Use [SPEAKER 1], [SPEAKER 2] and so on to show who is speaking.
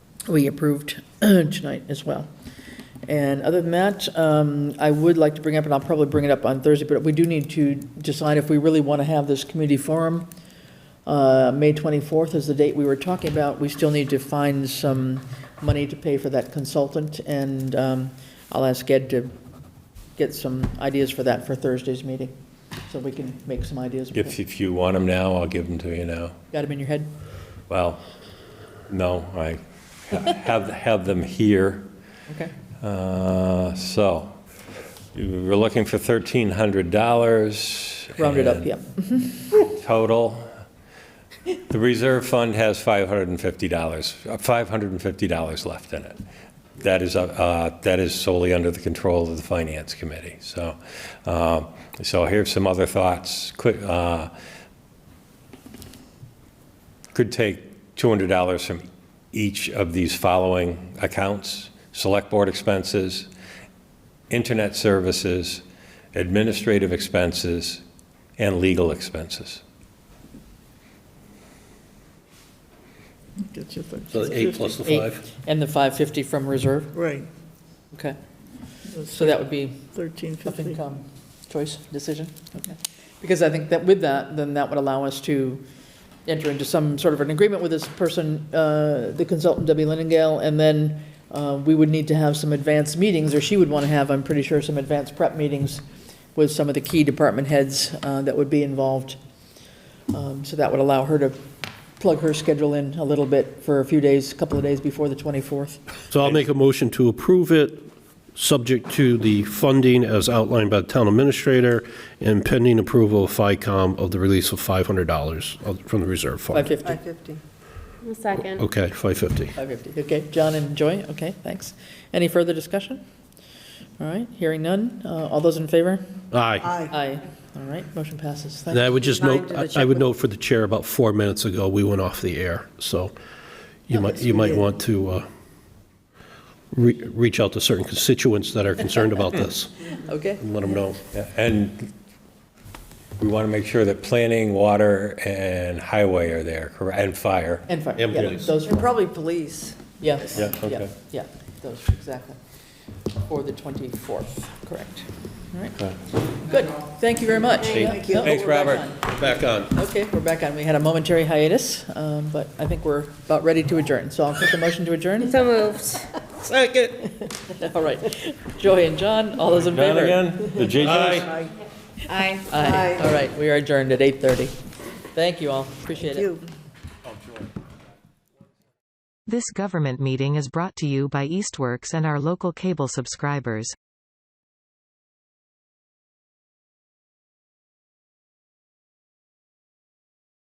[SPEAKER 1] we approved tonight as well. And other than that, um, I would like to bring up, and I'll probably bring it up on Thursday, but we do need to decide if we really want to have this community forum. Uh, May 24th is the date we were talking about. We still need to find some money to pay for that consultant, and um, I'll ask Ed to get some ideas for that for Thursday's meeting, so we can make some ideas.
[SPEAKER 2] If, if you want them now, I'll give them to you now.
[SPEAKER 1] Got them in your head?
[SPEAKER 2] Well, no, I ha- have, have them here.
[SPEAKER 1] Okay.
[SPEAKER 2] Uh, So, you we're looking for $1,300.
[SPEAKER 1] Round it up,
[SPEAKER 3] uh,
[SPEAKER 2] and
[SPEAKER 1] yep.
[SPEAKER 2] Total. The reserve fund has $550, uh, $550 left in it. That is, uh, uh, that is solely under the control of the Finance Committee. So, uh, so here's some other thoughts. Could, uh, could take $200 from each of these following accounts: Select Board expenses, internet services, administrative expenses, and legal expenses.
[SPEAKER 1] Get your thing.
[SPEAKER 3] So the eight plus the
[SPEAKER 1] Eight,
[SPEAKER 3] five?
[SPEAKER 1] And the 550 from reserve,
[SPEAKER 4] Right,
[SPEAKER 1] okay. So that would be
[SPEAKER 4] thirteen
[SPEAKER 1] up
[SPEAKER 4] fifty.
[SPEAKER 1] income choice decision, okay. Because I think that with that, then that would allow us to enter into some sort of an agreement with this person, uh, the consultant Debbie Leningale, and then uh, we would need to have some advanced meetings, or she would want to have, I'm pretty sure, some advanced prep meetings with some of the key department heads uh, that would be involved. Um, So that would allow her to plug her schedule in a little bit for a few days, a couple of days before the 24th.
[SPEAKER 3] So I'll make a motion to approve it, subject to the funding as outlined by the town administrator and pending approval of FICOM of the release of $500 of- from the reserve fund.
[SPEAKER 1] 550.
[SPEAKER 4] Five fifty.
[SPEAKER 5] A second.
[SPEAKER 3] Okay, 550.
[SPEAKER 1] 550, okay, John and Joy, okay, thanks. Any further discussion? All right, hearing none, Uh, all those in favor?
[SPEAKER 3] Aye.
[SPEAKER 4] Aye.
[SPEAKER 1] Aye. All right, motion passes,
[SPEAKER 3] And
[SPEAKER 1] thank
[SPEAKER 3] I would just
[SPEAKER 4] Nine
[SPEAKER 3] note,
[SPEAKER 4] to the
[SPEAKER 3] I- I would note for the chair, about four minutes ago, we went off the air, so you might, you might want to uh, re- reach out to certain constituents that are concerned about this
[SPEAKER 1] you. Okay,
[SPEAKER 3] and let them know.
[SPEAKER 2] And we want to make sure that planning, water, and highway are there, correct, and fire.
[SPEAKER 1] and fire.
[SPEAKER 3] And
[SPEAKER 1] yeah,
[SPEAKER 3] police.
[SPEAKER 1] Those,
[SPEAKER 4] And probably police.
[SPEAKER 1] yes,
[SPEAKER 2] Yeah,
[SPEAKER 1] yeah,
[SPEAKER 2] okay.
[SPEAKER 1] yeah, those, exactly. For the 24th, correct. All right,
[SPEAKER 2] Okay.
[SPEAKER 1] good, thank you very much. Yeah,
[SPEAKER 2] Thank you.
[SPEAKER 1] no,
[SPEAKER 2] Thanks,
[SPEAKER 1] we're back
[SPEAKER 2] Robert.
[SPEAKER 1] on.
[SPEAKER 3] Back on.
[SPEAKER 1] Okay, we're back on, we had a momentary hiatus, um, but I think we're about ready to adjourn, so I'll take a motion to adjourn.
[SPEAKER 5] So moved.
[SPEAKER 1] All right, Joy and John, all those in favor?
[SPEAKER 2] John again? The JJ's?
[SPEAKER 4] Aye.
[SPEAKER 5] Aye.
[SPEAKER 1] Aye.
[SPEAKER 4] Aye.
[SPEAKER 1] All right, we are adjourned at 8:30. Thank you all, appreciate it.
[SPEAKER 4] You.
[SPEAKER 6] This government meeting is brought to you by Eastworks and our local cable subscribers.